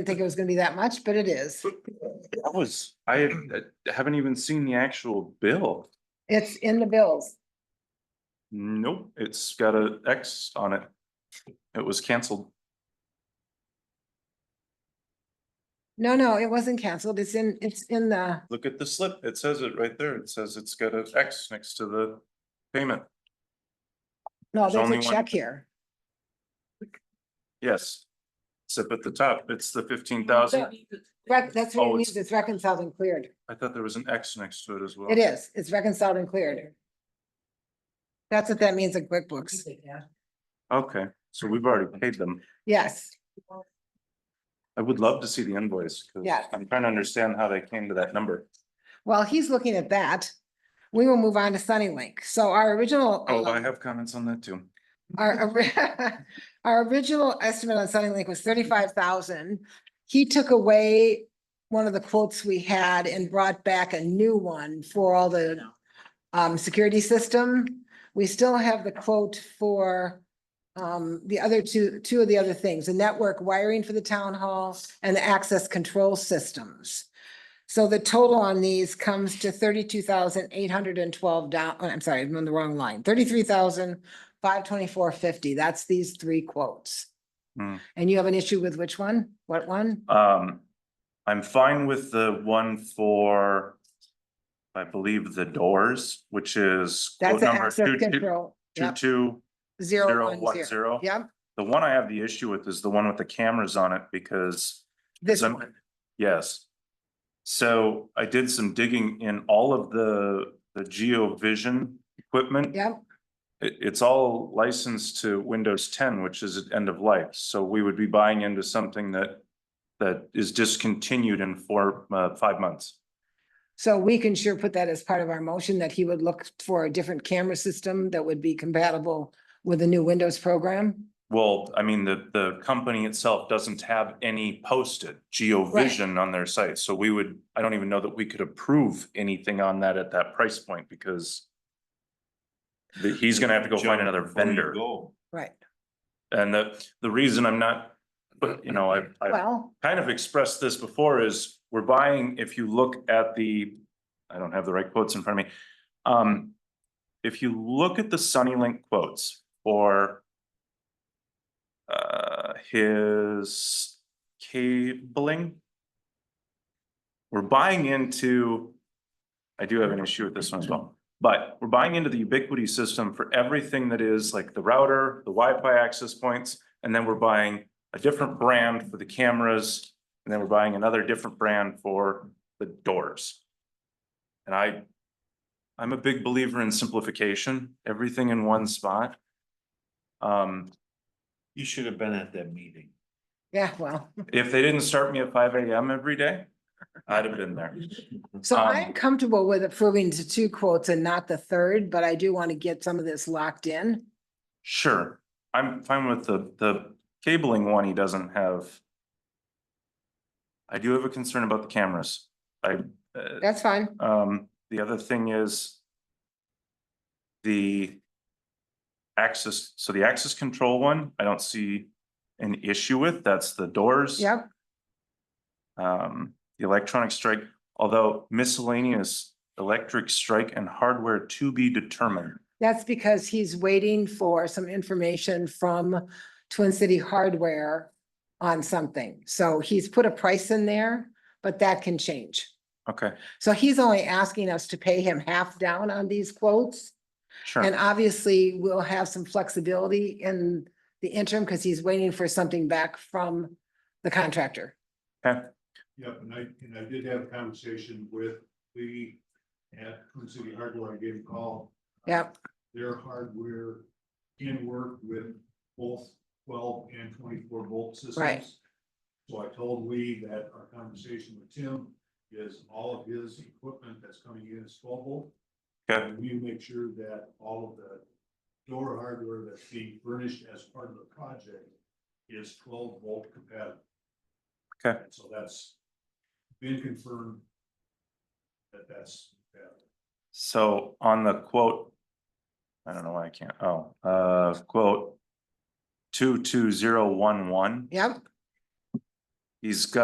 Didn't think it was gonna be that much, but it is. That was, I I haven't even seen the actual bill. It's in the bills. Nope, it's got a X on it. It was canceled. No, no, it wasn't canceled. It's in, it's in the, Look at the slip. It says it right there. It says it's got an X next to the payment. no, There's only there's a one. check here. Yes. It's up at the top. It's the fifteen thousand. Rec- That's Oh, what it it's- means. It's reconciled and cleared. I thought there was an X next to it as well. It is. It's reconciled and cleared. That's what that means in QuickBooks. Okay, so we've already paid them. Yes, I would love to see the invoice. 'cause Yeah. I'm trying to understand how they came to that number. well, he's looking at that. We will move on to Sunnylink. So our original. Oh, I um, have comments on that too. Our, ori- our original estimate on Sunny Lake was thirty-five thousand. He took away one of the quotes we had and brought back a new one for all the um, security system. We still have the quote for um, the other two, two of the other things, the network wiring for the town hall and the access control systems. So the total on these comes to thirty-two thousand eight hundred and twelve down, I'm sorry, I'm on the wrong line, thirty-three thousand five twenty-four fifty, that's these three quotes. Hmm. And you have an issue with which one? What one? Um, I'm fine with the one for, I believe, the doors, which is quote That's an number access two, two, control. two, Yep, two, zero zero, one one, zero. zero. Yep, The one I have the issue with is the one with the cameras on it because this some- one, Yes. So I did some digging in all of the, the GeoVision equipment. yep, It, it's all licensed to Windows ten, which is at end of life, so we would be buying into something that. That is discontinued in four, uh, five months. so we can sure put that as part of our motion that he would look for a different camera system that would be compatible with the new Windows program. Well, I mean, the, the company itself doesn't have any posted GeoVision on their site, so we would, I don't even know that we could approve anything on that at that price point because. the- he's gonna have to go find another vendor. Right, And the, the reason I'm not, but you know, I, I well, kind of expressed this before is we're buying, if you look at the, I don't have the right quotes in front of me. Um, if you look at the Sunnylink quotes for uh, his cabling, we're buying into, I do have an issue with this one as well. But we're buying into the ubiquity system for everything that is like the router, the Wi-Fi access points, and then we're buying a different brand for the cameras, and then we're buying another different brand for the doors. And I, I'm a big believer in simplification, everything in one spot. Um, You should have been at that meeting. yeah, well. if they didn't start me at five AM every day, I'd have been there. So Um, I'm comfortable with approving to two quotes and not the third, but I do want to get some of this locked in. Sure, I'm fine with the, the cabling one, he doesn't have. I do have a concern about the cameras. I, uh, That's fine. Um, the other thing is the access, so the access control one, I don't see an issue with, that's the doors. Yep, Um, the electronic strike, although miscellaneous electric strike and hardware to be determined. that's because he's waiting for some information from Twin City Hardware on something. So he's put a price in there, but that can change. Okay, So he's only asking us to pay him half down on these quotes. And sure, obviously, we'll have some flexibility in the interim because he's waiting for something back from the contractor. okay, Yeah, and I, and I did have a conversation with Lee at Twin City Hardware, I gave him a call. Yep. Their hardware can work with both twelve and twenty-four volt systems. Right. So I told Lee that our conversation with Tim is all of his equipment that's coming in is twelve volt. okay, And we make sure that all of the door hardware that's being furnished as part of the project is twelve volt compatible. Okay. And So that's been confirmed that that's. compatible. so on the quote. I don't know why I can't, oh, uh, quote. Two two zero one one. Yep. He's got